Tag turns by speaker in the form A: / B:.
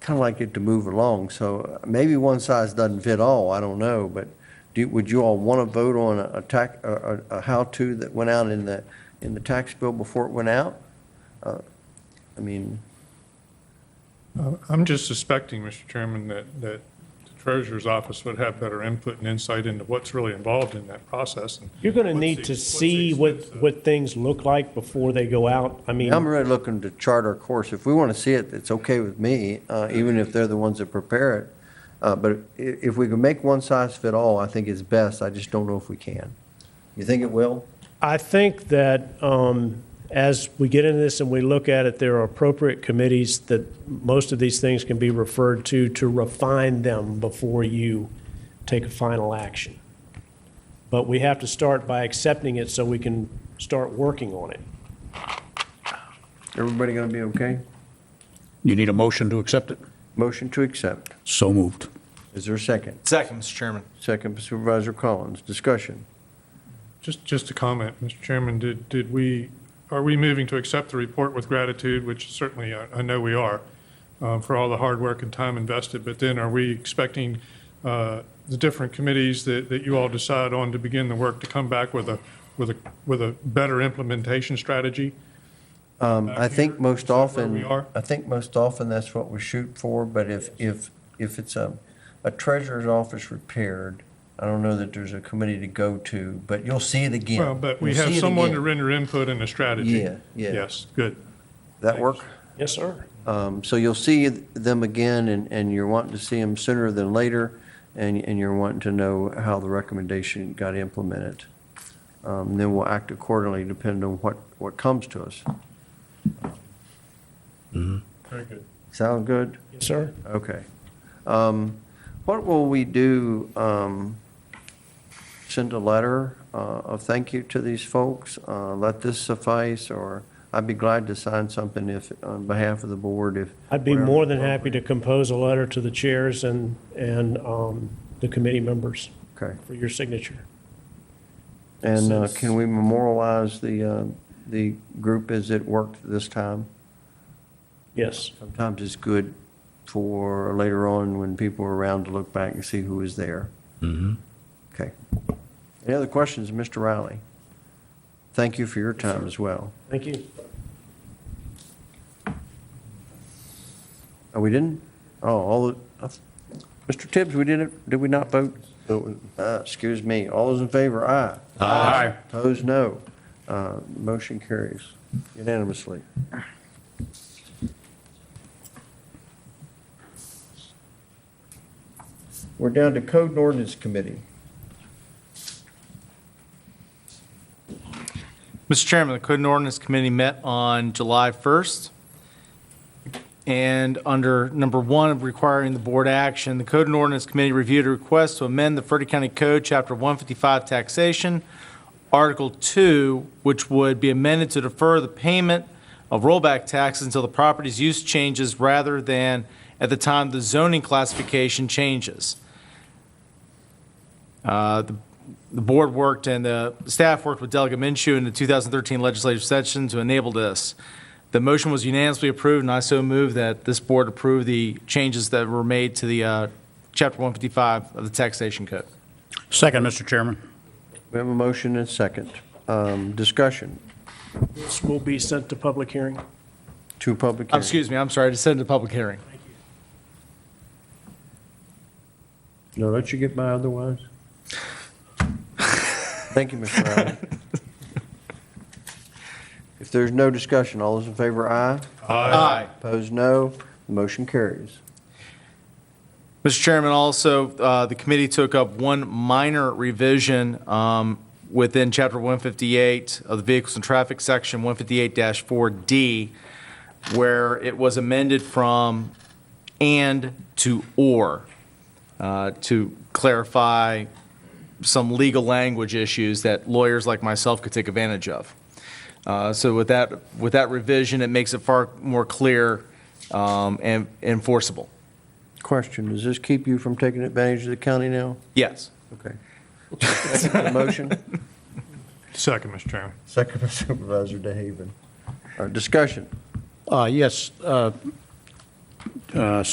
A: kind of like it to move along, so maybe one size doesn't fit all, I don't know, but do, would you all want to vote on a- a tax, a, a a how-to that went out in the, in the tax bill before it went out? Uh, I mean,
B: Uh, I'm just suspecting, Mr. Chairman, that, that the treasurer's office would have better input and insight into what's really involved in that process. and
C: You're going to
B: what's the-
C: need to
B: what's the
C: see what,
B: extent of-
C: what things look like before they go out. I mean,
A: I'm really looking to chart our course. If we want to see it, it's okay with me, uh, even if they're the ones that prepare it. Uh, But i- if we can make one size fit all, I think it's best. I just don't know if we can. You think it will?
C: I think that um, as we get into this and we look at it, there are appropriate committees that most of these things can be referred to to refine them before you take a final action. But we have to start by accepting it so we can start working on it.
A: Everybody going to be okay?
D: You need a motion to accept it?
A: Motion to accept.
D: So moved.
A: Is there a second?
E: Second, Mr. Chairman.
A: Second Supervisor Collins. Discussion.
B: Just, just a comment, Mr. Chairman, did, did we, are we moving to accept the report with gratitude, which certainly I, I know we are, uh, for all the hard work and time invested, but then are we expecting uh, the different committees that, that you all decide on to begin the work to come back with a, with a, with a better implementation strategy?
A: Um, I think most
B: Is that where
A: often.
B: we are?
A: I think most often that's what we shoot for, but if, if, if it's a, a treasurer's office repaired, I don't know that there's a committee to go to, but you'll see it again.
B: Well, but we
A: You'll
B: have
A: see it
B: someone to
A: again.
B: render input and a strategy.
A: Yeah, yeah.
B: Yes, good.
A: That work?
C: Yes, sir.
A: Um, So you'll see them again, and, and you're wanting to see them sooner than later, and, and you're wanting to know how the recommendation got implemented. Um, Then we'll act accordingly, depending on what, what comes to us.
B: Very good.
A: Sound good?
C: Yes, sir.
A: Okay. Um, What will we do, um, send a letter uh, of thank you to these folks? Uh, Let this suffice, or I'd be glad to sign something if, on behalf of the board, if.
C: I'd be
A: whatever
C: more than
A: appropriate.
C: happy to compose a letter to the chairs and, and um, the committee members
A: Okay.
C: for your signature.
A: And uh,
C: Since-
A: can we memorialize the, uh, the group as it worked this time?
C: Yes.
A: Sometimes it's good for later on when people are around to look back and see who was there. Mm-hmm. Okay. Any other questions, Mr. Riley? Thank you for your time as well.
C: Thank you.
A: Oh, we didn't? Oh, all, the uh, Mr. Tibbs, we didn't, did we not vote? Uh, Excuse me. All those in favor, aye.
D: Aye.
A: Opposed, no. Uh, Motion carries unanimously. We're down to Code and Ordinance Committee.
E: Mr. Chairman, the Code and Ordinance Committee met on July 1st. And under number one of requiring the board action, the Code and Ordinance Committee reviewed a request to amend the Frederick County Code, Chapter 155 Taxation, Article 2, which would be amended to defer the payment of rollback taxes until the property's use changes rather than at the time the zoning classification changes. Uh, The the board worked and the staff worked with Delegate Minshew in the 2013 legislative session to enable this. The motion was unanimously approved, and I so move that this board approve the changes that were made to the uh, Chapter 155 of the Taxation Code.
D: Second, Mr. Chairman.
A: We have a motion and second. Um, Discussion,
C: This will be sent to public hearing.
A: two public
E: Um,
A: hearings.
E: Excuse me, I'm sorry, to send to public hearing.
A: No, don't you get by otherwise? Thank you, Mr. Riley. If there's no discussion, all those in favor, aye.
E: Aye.
A: Opposed, no. The motion carries.
E: Mr. Chairman, also, uh, the committee took up one minor revision um, within Chapter 158 of the Vehicles and Traffic Section, 158-4D, where it was amended from "and" to "or" uh, to clarify some legal language issues that lawyers like myself could take advantage of. Uh, So with that, with that revision, it makes it far more clear um, and enforceable.
A: Question, does this keep you from taking advantage of the county now?
E: Yes.
A: Okay. Second Motion?
B: Second, Mr. Chairman.
A: Second by Supervisor DeHaven. Uh, Discussion.
D: Uh, Yes. uh, uh,